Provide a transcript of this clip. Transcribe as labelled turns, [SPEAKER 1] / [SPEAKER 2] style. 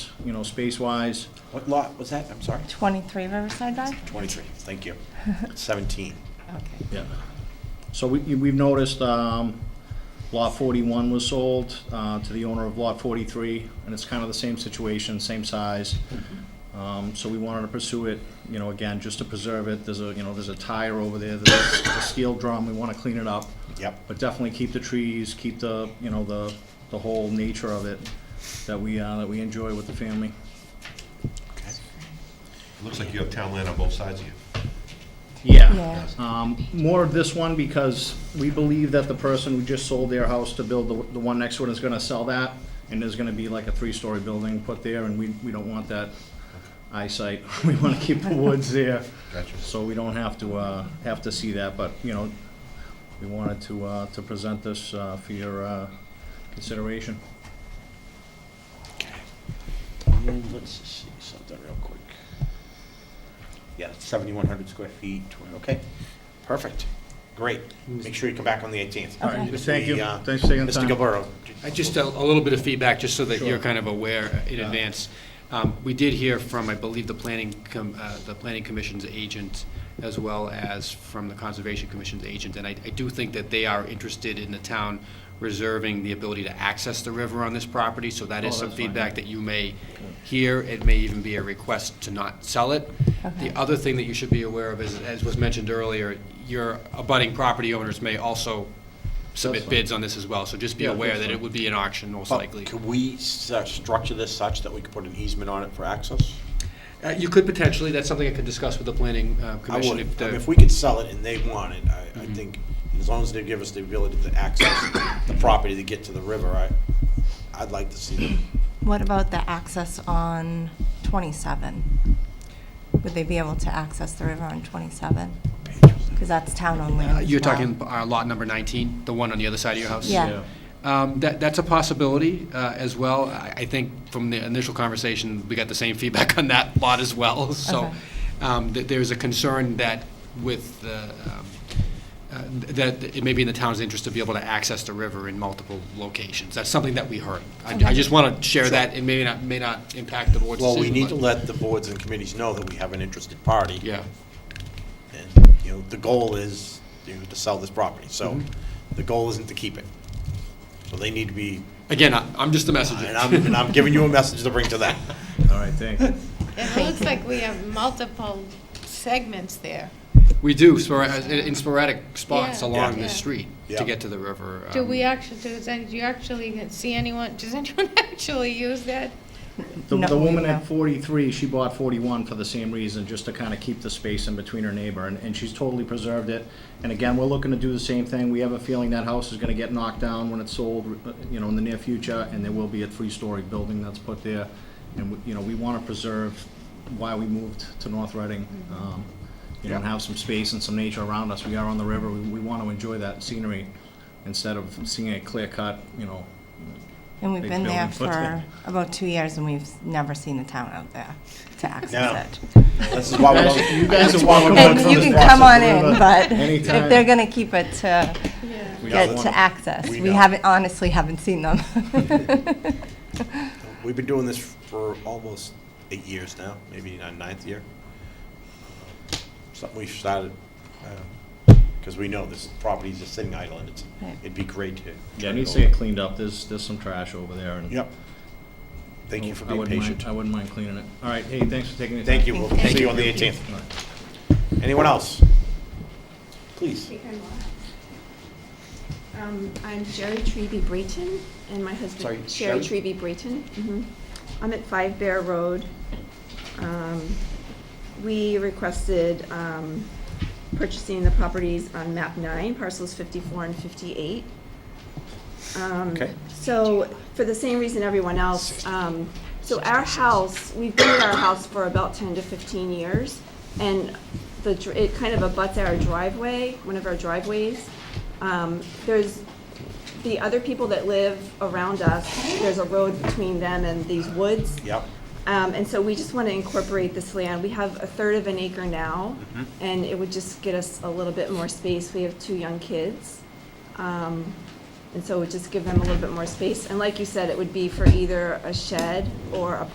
[SPEAKER 1] you know, space-wise.
[SPEAKER 2] What lot was that? I'm sorry.
[SPEAKER 3] 23 Riverside Drive?
[SPEAKER 2] 23, thank you. 17.
[SPEAKER 3] Okay.
[SPEAKER 1] Yeah. So we, we've noticed, um, lot forty-one was sold, uh, to the owner of lot forty-three, and it's kind of the same situation, same size. Um, so we wanted to pursue it, you know, again, just to preserve it, there's a, you know, there's a tire over there, there's a steel drum, we wanna clean it up.
[SPEAKER 2] Yep.
[SPEAKER 1] But definitely keep the trees, keep the, you know, the, the whole nature of it that we, uh, that we enjoy with the family.
[SPEAKER 2] Okay.
[SPEAKER 4] Looks like you have town land on both sides of you.
[SPEAKER 3] Yeah.
[SPEAKER 1] Um, More of this one because we believe that the person who just sold their house to build the, the one next one is gonna sell that, and there's gonna be like a three-story building put there, and we, we don't want that eyesight. We wanna keep the woods there,
[SPEAKER 4] Gotcha.
[SPEAKER 1] so we don't have to, uh, have to see that, but, you know, we wanted to, uh, to present this, uh, for your, uh, consideration.
[SPEAKER 2] Okay. And then let's just see something real quick. Yeah, it's 7,100 square feet, tw- okay, perfect, great. Make sure you come back on the 18th.
[SPEAKER 1] All right,
[SPEAKER 3] Okay.
[SPEAKER 1] thank you,
[SPEAKER 2] The, uh,
[SPEAKER 1] thanks for taking the
[SPEAKER 2] Mr.
[SPEAKER 1] time.
[SPEAKER 2] Gilberto.
[SPEAKER 5] I Just uh, a, a little bit of feedback, just so that
[SPEAKER 1] Sure.
[SPEAKER 5] you're kind of aware in
[SPEAKER 1] Yeah.
[SPEAKER 5] advance. Um, We did hear from, I believe, the planning, com- uh, the planning commission's agent, as well as from the conservation commission's agent, and I, I do think that they are interested in the town reserving the ability to access the river on this property, so that
[SPEAKER 1] Oh,
[SPEAKER 5] is some
[SPEAKER 1] that's fine.
[SPEAKER 5] feedback that you may hear. It may even be a request to not sell it. The other thing that you should be aware of is, as was mentioned earlier, your abutting property owners may also submit
[SPEAKER 1] fine.
[SPEAKER 5] bids on this as well, so just be
[SPEAKER 1] Yeah,
[SPEAKER 5] aware
[SPEAKER 1] that's
[SPEAKER 5] that
[SPEAKER 1] fine.
[SPEAKER 5] it would be an auction most likely.
[SPEAKER 2] Could we s- uh, structure this such that we could put an easement on it for access?
[SPEAKER 5] Uh, You could potentially, that's something I could discuss with the planning uh,
[SPEAKER 2] I
[SPEAKER 5] commission.
[SPEAKER 2] would,
[SPEAKER 5] if
[SPEAKER 2] I mean,
[SPEAKER 5] the- Mm-hmm.
[SPEAKER 2] if we could sell it and they want it, I, I think, as long as they give us the ability to access the property to get to the river, I, I'd like to see them.
[SPEAKER 3] What about the access on 27? Would they be able to access the river on 27? Because that's town-owned land
[SPEAKER 5] Uh,
[SPEAKER 3] as
[SPEAKER 5] You're
[SPEAKER 3] well.
[SPEAKER 5] talking uh, lot number 19, the one on the other side of your house?
[SPEAKER 3] Yeah.
[SPEAKER 5] Um, That, that's a possibility uh, as well. I I think from the initial conversation, we got the same feedback on that lot as well. So
[SPEAKER 3] Okay.
[SPEAKER 5] um, th- there's a concern that with, the, um, uh, that it may be in the town's interest to be able to access the river in multiple locations. That's something that we heard. I- I
[SPEAKER 3] Okay.
[SPEAKER 5] just want to share that. It may not, may not impact the board's
[SPEAKER 2] Well,
[SPEAKER 5] decision.
[SPEAKER 2] we need to
[SPEAKER 5] but-
[SPEAKER 2] let the boards and committees know that we have an interested party.
[SPEAKER 5] Yeah.
[SPEAKER 2] And, you know, the goal is, you know, to sell this property, so
[SPEAKER 1] Mm-hmm.
[SPEAKER 2] the goal isn't to keep it. So they need to be,
[SPEAKER 5] Again, I- I'm just the messenger.
[SPEAKER 2] and I'm, and I'm giving you a message to bring to them.
[SPEAKER 1] All right, thank you.
[SPEAKER 6] It looks like we have multiple segments there.
[SPEAKER 5] We do, spora- in in sporadic spots
[SPEAKER 6] Yeah.
[SPEAKER 5] along
[SPEAKER 6] Yeah.
[SPEAKER 5] the street
[SPEAKER 2] Yeah.
[SPEAKER 5] to get to the river.
[SPEAKER 6] Do
[SPEAKER 5] um,
[SPEAKER 6] we actually, does, any- do you actually see anyone, does anyone actually use that?
[SPEAKER 1] The,
[SPEAKER 3] No,
[SPEAKER 1] the
[SPEAKER 3] we
[SPEAKER 1] woman
[SPEAKER 3] know.
[SPEAKER 1] at 43, she bought 41 for the same reason, just to kind of keep the space in between her neighbor, and, and she's totally preserved it. And again, we're looking to do the same thing. We have a feeling that house is going to get knocked down when it's sold, uh, you know, in the near future, and there will be a three-story building that's put there. And, we- you know, we want to preserve why we moved to North Reading, um, you know, and have some space and some nature around us. We are on the river. We, we want to enjoy that scenery instead of seeing a clear-cut, you know,
[SPEAKER 3] And we've
[SPEAKER 1] Big
[SPEAKER 3] been there
[SPEAKER 1] building footprint.
[SPEAKER 3] for about two years, and we've never seen a town out there to
[SPEAKER 2] No.
[SPEAKER 3] access it.
[SPEAKER 2] This is why we don't.
[SPEAKER 1] You guys
[SPEAKER 2] this
[SPEAKER 1] are
[SPEAKER 2] is why we're
[SPEAKER 1] welcome
[SPEAKER 2] going
[SPEAKER 3] And
[SPEAKER 2] through
[SPEAKER 3] you
[SPEAKER 2] this
[SPEAKER 3] can come on
[SPEAKER 2] process.
[SPEAKER 3] in, but if
[SPEAKER 1] Anytime.
[SPEAKER 3] they're going to keep it to
[SPEAKER 6] Yeah.
[SPEAKER 2] We
[SPEAKER 3] get
[SPEAKER 2] don't
[SPEAKER 3] to
[SPEAKER 2] wanna-
[SPEAKER 3] access,
[SPEAKER 2] we
[SPEAKER 3] we
[SPEAKER 2] know.
[SPEAKER 3] haven't, honestly haven't seen them.
[SPEAKER 2] We've been doing this for almost eight years now, maybe our ninth year. Something we started, because we know this property is just sitting idle, and it's,
[SPEAKER 3] Right.
[SPEAKER 2] it'd be great to.
[SPEAKER 1] Yeah, it needs to get cleaned up. There's, there's some trash over there and.
[SPEAKER 2] Yep. Thank you for
[SPEAKER 1] Oh, I
[SPEAKER 2] being
[SPEAKER 1] wouldn't mind-
[SPEAKER 2] patient.
[SPEAKER 1] I wouldn't mind cleaning it. All right, hey, thanks for taking the time.
[SPEAKER 2] Thank you, we'll
[SPEAKER 3] Thank
[SPEAKER 2] see
[SPEAKER 3] you.
[SPEAKER 2] you on the eighteenth.
[SPEAKER 1] All right.
[SPEAKER 2] Anyone else? Please.
[SPEAKER 7] Um, I'm Jerry Treby Breton, and my
[SPEAKER 2] Sorry,
[SPEAKER 7] husband, Sherry
[SPEAKER 2] Sherry?
[SPEAKER 7] Treby Breton. Mhm. I'm at Five Bear Road. Um, We requested um, purchasing the properties on map nine, parcels 54 and 58. Um,
[SPEAKER 2] Okay.
[SPEAKER 7] So, for the same reason everyone else, um, so our house, we've been at our house for about ten to fifteen years, and the, dr- it kind of abuts our driveway, one of our driveways. Um, there's, the other people that live around us, there's a road between them and these woods.
[SPEAKER 2] Yep.
[SPEAKER 7] Um, and so we just want to incorporate this land. We have a third of an acre now, and it would just get us a little bit more space. We have two young kids. Um, and so it would just give them a little bit more space. And like you said, it would be for either a shed or a